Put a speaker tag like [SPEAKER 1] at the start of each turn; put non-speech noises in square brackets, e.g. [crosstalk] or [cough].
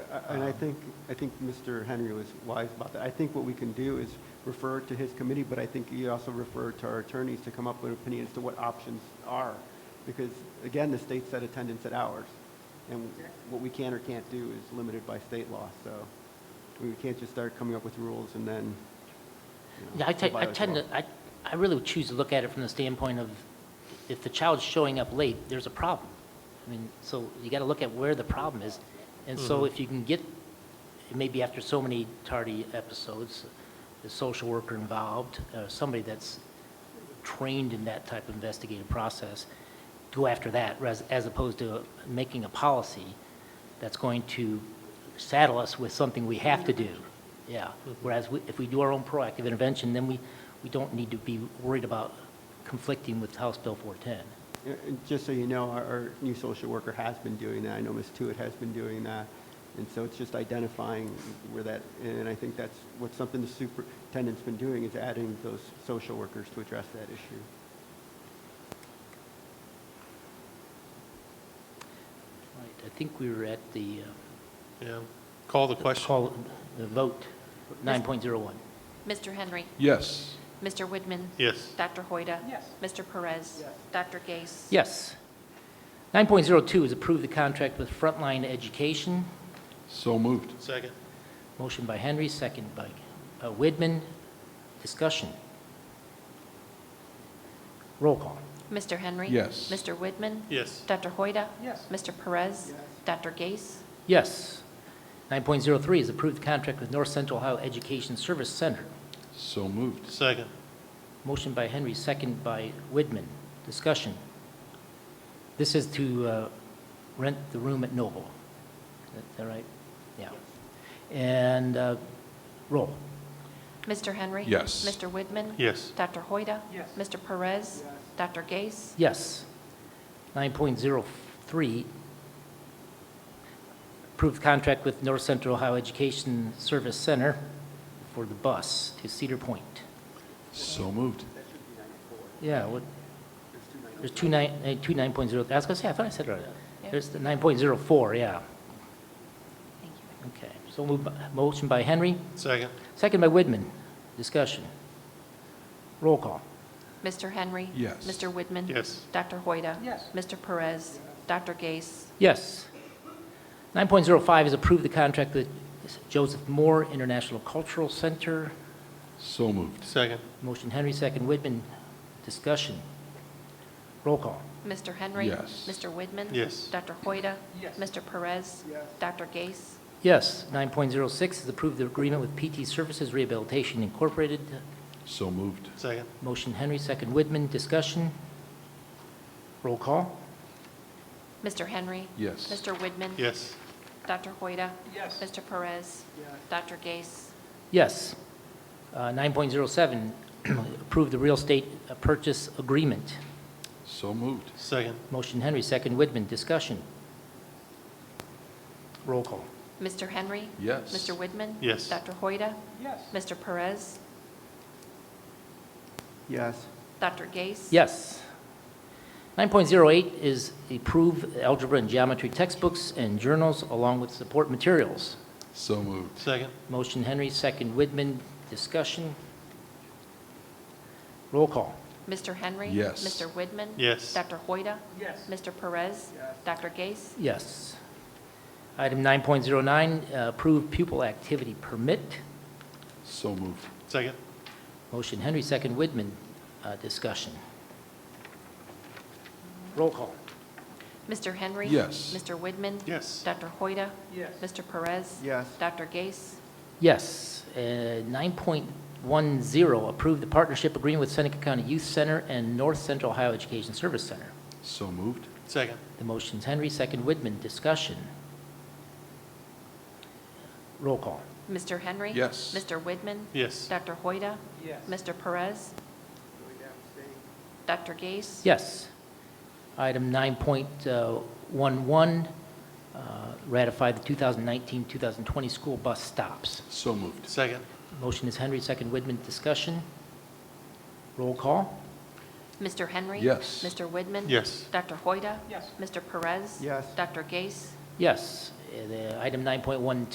[SPEAKER 1] And I think, I think Mr. Henry was wise about that. I think what we can do is refer to his committee, but I think you also refer to our attorneys to come up with opinions to what options are. Because again, the state set attendance at hours. And what we can or can't do is limited by state law, so we can't just start coming up with rules and then, you know,
[SPEAKER 2] Yeah, I te-
[SPEAKER 1] abide
[SPEAKER 2] I
[SPEAKER 1] by
[SPEAKER 2] tend
[SPEAKER 1] law.
[SPEAKER 2] to, I, I really would choose to look at it from the standpoint of, if the child's showing up late, there's a problem. I mean, so you gotta look at where the problem is, and so if you can get, maybe after so many tardy episodes, the social worker involved, uh, somebody that's trained in that type of investigative process, go after that, res- as opposed to making a policy that's going to saddle us with something we have to do. Yeah, whereas we- if we do our own proactive intervention, then we, we don't need to be worried about conflicting with House Bill 410.
[SPEAKER 1] Uh, and Just so you know, our, our new social worker has been doing that. I know Ms. Tuitt has been doing that. And so it's just identifying where that, and I think that's what something the superintendent's been doing is adding those social workers to address that issue.
[SPEAKER 2] Right, I think we were at the uh,
[SPEAKER 3] Yeah, call the question.
[SPEAKER 2] call, the vote, 9.01.
[SPEAKER 4] Mr. Henry.
[SPEAKER 5] Yes.
[SPEAKER 4] Mr. Widman.
[SPEAKER 3] Yes,
[SPEAKER 4] Dr. Hoida. Yes. Mr. Perez. Dr. Gase.
[SPEAKER 2] Yes. 9.02 is approve the contract with Frontline Education.
[SPEAKER 5] So moved.
[SPEAKER 3] second.
[SPEAKER 2] Motion by Henry, second by uh, Widman. Discussion. Roll call.
[SPEAKER 4] Mr. Henry.
[SPEAKER 5] Yes.
[SPEAKER 4] Mr. Widman.
[SPEAKER 3] Yes,
[SPEAKER 4] Dr. Hoida. Yes. Mr. Perez. Dr. Gase.
[SPEAKER 2] Yes. 9.03 is approve the contract with North Central Ohio Education Service Center.
[SPEAKER 5] So moved.
[SPEAKER 3] second.
[SPEAKER 2] Motion by Henry, second by Widman. Discussion. This is to uh, rent the room at Noble. Is that right? Yeah. And uh, roll.
[SPEAKER 4] Mr. Henry.
[SPEAKER 5] Yes.
[SPEAKER 4] Mr. Widman.
[SPEAKER 3] Yes,
[SPEAKER 4] Dr. Hoida. Yes. Mr. Perez. Dr. Gase.
[SPEAKER 2] Yes. 9.03, approved contract with North Central Ohio Education Service Center for the bus to Cedar Point.
[SPEAKER 5] So moved.
[SPEAKER 2] Yeah, what? There's two nine, eh, two 9.0, I was gonna say, I thought I said it right.
[SPEAKER 4] Yeah.
[SPEAKER 2] There's the 9.04, yeah.
[SPEAKER 4] Thank you.
[SPEAKER 2] Okay, so moved by- motion by Henry,
[SPEAKER 3] second.
[SPEAKER 2] second by Widman. Discussion. Roll call.
[SPEAKER 4] Mr. Henry.
[SPEAKER 5] Yes.
[SPEAKER 4] Mr. Widman.
[SPEAKER 3] Yes,
[SPEAKER 4] Dr. Hoida. Yes. Mr. Perez. Dr. Gase.
[SPEAKER 2] Yes. 9.05 is approve the contract with Joseph Moore International Cultural Center.
[SPEAKER 5] So moved.
[SPEAKER 3] second.
[SPEAKER 2] Motion Henry, second Widman. Discussion. Roll call.
[SPEAKER 4] Mr. Henry.
[SPEAKER 5] Yes.
[SPEAKER 4] Mr. Widman.
[SPEAKER 3] Yes.
[SPEAKER 4] Dr. Hoida. Yes. Mr. Perez. Yes. Dr. Gase.
[SPEAKER 2] Yes. 9.06 is approve the agreement with PT Services Rehabilitation Incorporated.
[SPEAKER 5] So moved.
[SPEAKER 3] Second.
[SPEAKER 2] Motion Henry, second Widman. Discussion. Roll call.
[SPEAKER 4] Mr. Henry.
[SPEAKER 5] Yes.
[SPEAKER 4] Mr. Widman.
[SPEAKER 3] Yes,
[SPEAKER 4] Dr. Hoida. Yes. Mr. Perez. Dr. Gase.
[SPEAKER 2] Yes. Uh, [clears throat] 9.07, approve the real estate uh, purchase agreement.
[SPEAKER 5] So moved.
[SPEAKER 3] second.
[SPEAKER 2] Motion Henry, second Widman. Discussion. Roll call.
[SPEAKER 4] Mr. Henry.
[SPEAKER 5] Yes.
[SPEAKER 4] Mr. Widman.
[SPEAKER 3] Yes.
[SPEAKER 4] Dr. Hoida. Yes. Mr. Perez.
[SPEAKER 1] Yes,
[SPEAKER 4] Dr. Gase.
[SPEAKER 2] Yes. 9.08 is approve algebra and geometry textbooks and journals along with support materials.
[SPEAKER 5] So moved.
[SPEAKER 3] Second.
[SPEAKER 2] Motion Henry, second Widman. Discussion. Roll call.
[SPEAKER 4] Mr. Henry.
[SPEAKER 5] Yes.
[SPEAKER 4] Mr. Widman.
[SPEAKER 3] Yes,
[SPEAKER 4] Dr. Hoida. Yes. Mr. Perez. Dr. Gase.
[SPEAKER 2] Yes. Item 9.09, uh, approve pupil activity permit.
[SPEAKER 5] So moved.
[SPEAKER 3] second.
[SPEAKER 2] Motion Henry, second Widman. Uh, Discussion. Roll call.
[SPEAKER 4] Mr. Henry.
[SPEAKER 5] Yes.
[SPEAKER 4] Mr. Widman.
[SPEAKER 3] Yes,
[SPEAKER 4] Dr. Hoida. Yes. Mr. Perez.
[SPEAKER 1] Yes.
[SPEAKER 4] Dr. Gase.
[SPEAKER 2] Yes. Uh, 9.10, approve the partnership agreement with Seneca County Youth Center and North Central Ohio Education Service Center.
[SPEAKER 5] So moved.
[SPEAKER 3] second.
[SPEAKER 2] The motion's Henry, second Widman. Discussion. Roll call.
[SPEAKER 4] Mr. Henry.
[SPEAKER 5] Yes.
[SPEAKER 4] Mr. Widman.
[SPEAKER 3] Yes,
[SPEAKER 4] Dr. Hoida. Yes. Mr. Perez. Dr. Gase.
[SPEAKER 2] Yes. Item 9.11, uh, ratify the 2019-2020 school bus stops.
[SPEAKER 5] So moved.
[SPEAKER 3] second.
[SPEAKER 2] Motion is Henry, second Widman. Discussion. Roll call.
[SPEAKER 4] Mr. Henry.
[SPEAKER 5] Yes.
[SPEAKER 4] Mr. Widman.
[SPEAKER 3] Yes,
[SPEAKER 4] Dr. Hoida. Yes. Mr. Perez.
[SPEAKER 1] Yes.
[SPEAKER 4] Dr. Gase.
[SPEAKER 2] Yes. uh, the item 9.1